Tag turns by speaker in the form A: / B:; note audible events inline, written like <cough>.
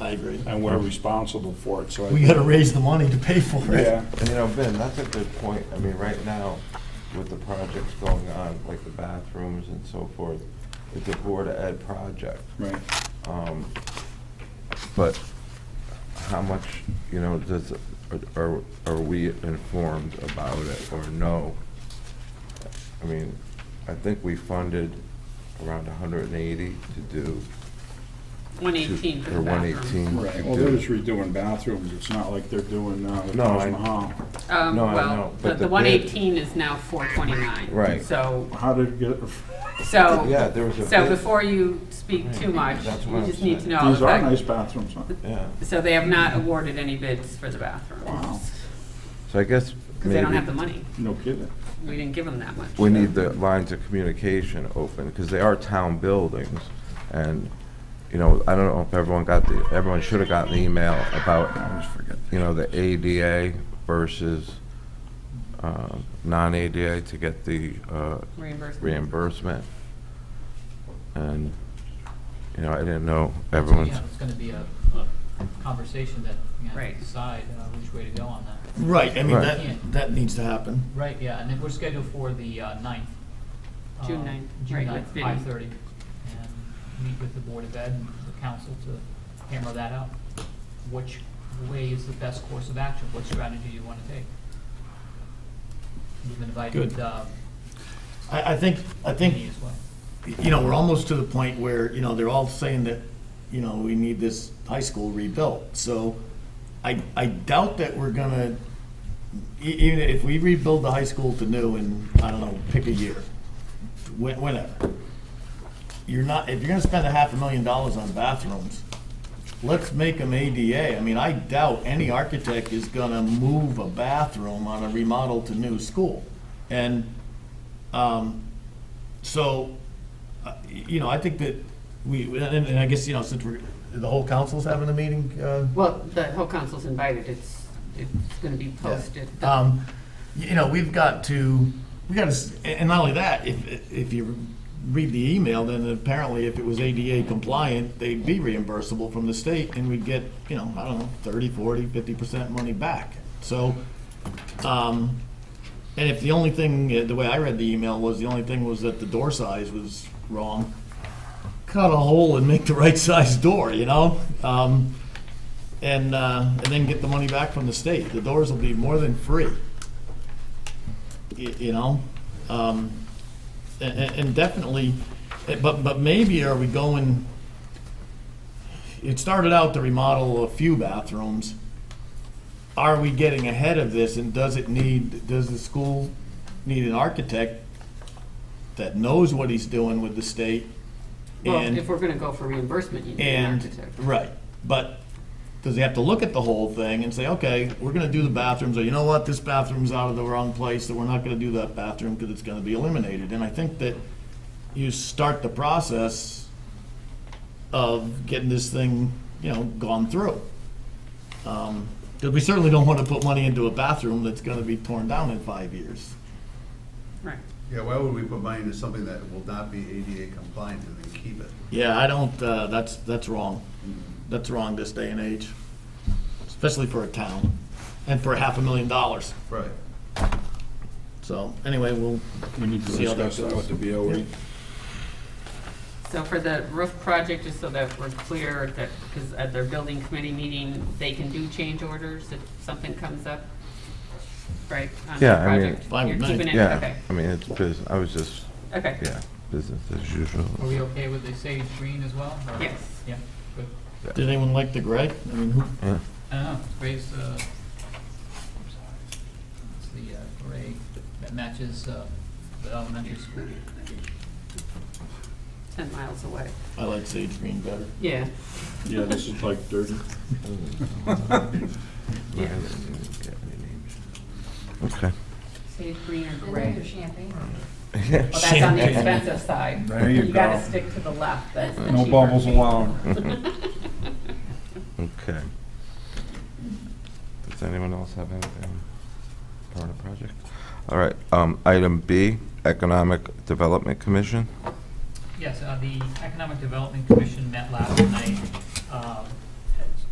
A: I agree.
B: and we're responsible for it, so. I-
A: We gotta raise the money to pay for it.
B: Yeah,
C: And you know, Ben, that's a good point. I mean, right now, with the projects going on, like the bathrooms and so forth, it's a Board of Ed project.
B: right.
C: Um, But how much, you know, does, are, are we informed about it or no? I mean, I think we funded around hundred and eighty to do.
D: One eighteen for the
C: Or one
D: bathroom.
C: eighteen.
B: Right, well, they're just redoing bathrooms, it's not like they're doing, uh, the
C: No,
B: Taj
C: I-
B: Mahal.
D: Um,
C: No, I
D: well,
C: know,
D: the,
C: but
D: the
C: the
D: one
C: bid-
D: eighteen is now four twenty-nine.
C: Right.
D: So,
B: How did it get, <laughs>
D: so.
C: Yeah, there was a
D: Oh. So
C: bid.
D: before you speak too much,
C: That's
D: you
C: what I'm
D: just need to
C: saying.
D: know. all
B: these
D: the
B: are
D: fact-
B: nice bathrooms, huh?
C: Yeah,
D: So they have not awarded any bids for the bathrooms,
C: so I guess
D: because they don't have the
C: maybe
D: money.
B: No kidding.
D: We didn't give them that much.
C: we need the lines of communication open, because they are town buildings. And, you know, I don't know if everyone got the, everyone should have gotten the email about
B: always forget.
C: you know, the ADA versus uh, non-ADA to get the uh,
D: Reimbursement.
C: reimbursement. And, you know, I didn't know everyone's,
E: Yeah, it's gonna be a a conversation that we have
D: Right.
E: to decide uh, which way to go on that.
A: Right, I mean,
C: Right.
A: that, that needs to happen.
E: Right, yeah, and then we're scheduled for the uh, ninth.
D: June
E: um,
D: ninth,
E: June
D: right,
E: ninth,
D: with Vinnie.
E: five thirty. And meet with the Board of Ed and the council to hammer that out. Which way is the best course of action? What strategy do you wanna take? We've invited
A: Good.
E: uh,
A: I, I think, I
E: Vinnie
A: think,
E: as well.
A: you know, we're almost to the point where, you know, they're all saying that, you know, we need this high school rebuilt. So I, I doubt that we're gonna, e- even if we rebuild the high school to new in, I don't know, pick a year, whe- whenever. You're not, if you're gonna spend a half a million dollars on bathrooms, let's make them ADA. I mean, I doubt any architect is gonna move a bathroom on a remodel to new school. And, um, so, uh, y- you know, I think that we, and, and I guess, you know, since we're, the whole council's having a meeting, uh,
D: Well, the whole council's invited, it's, it's gonna be posted.
A: um, you know, we've got to, we got to, and not only that, if, if you read the email, then apparently if it was ADA compliant, they'd be reimbursable from the state and we'd get, you know, I don't know, 30, 40, 50% money back. So, um, and if the only thing, uh, the way I read the email was, the only thing was that the door size was wrong, cut a hole and make the <laughs> right size door, you know? Um, and, uh, and then get the money back from the state. The doors will be more than free. Y- You know? Um, a- a- and definitely, eh, but, but maybe are we going, it started out to remodel a few bathrooms. Are we getting ahead of this and does it need, does the school need an architect that knows what he's doing with the state?
D: Well,
A: and-
D: if we're gonna go for reimbursement, you need an
A: and,
D: architect.
A: right, but does he have to look at the whole thing and say, okay, we're gonna do the bathrooms, or you know what, this bathroom's out of the wrong place, so we're not gonna do that bathroom because it's gonna be eliminated? And I think that you start the process of getting this thing, you know, gone through. Because we certainly don't want to put money into a bathroom that's gonna be torn down in five years.
D: Right.
F: Yeah, why would we put money into something that will not be ADA compliant and then keep it?
A: Yeah, I don't, uh, that's, that's wrong. That's wrong this day and age, especially for a town and for half a million dollars.
F: Right.
A: So anyway, we'll,
B: We need to
A: See how that
B: discuss that with the E. BOE.
D: So for the roof project, just so that we're clear, that, because at their building committee meeting, they can do change orders if something comes up, right? on the
C: Yeah, I mean-
D: project?
A: Fine with
D: You're
A: me.
D: keeping it-
C: yeah,
D: Okay,
C: I mean, it's business, I was just,
D: okay.
C: yeah, business as usual.
E: Are we okay with the sage green as well? or-
D: Yes.
E: Yeah, good.
A: did anyone like the gray? I mean, who,
C: Yeah.
E: I don't know, gray's, uh, I'm sorry. it's the uh, gray that matches uh, the elementary school.
D: Ten miles away.
A: I like sage green better.
D: Yeah,
B: Yeah, this is like dirty.
D: yeah.
C: Okay.
D: Sage green or
G: Another
D: gray.
G: champagne.
D: Well, that's on the
A: Champagne.
D: expensive side.
B: There you
D: gotta
B: go.
D: stick to the left, that's the
B: No
D: cheaper.
B: bubbles allowed.
D: <laughs>
C: Okay. Does anyone else have anything part of project? All right, um, item B, Economic Development Commission.
E: Yes, uh, the Economic Development Commission met last night. Um,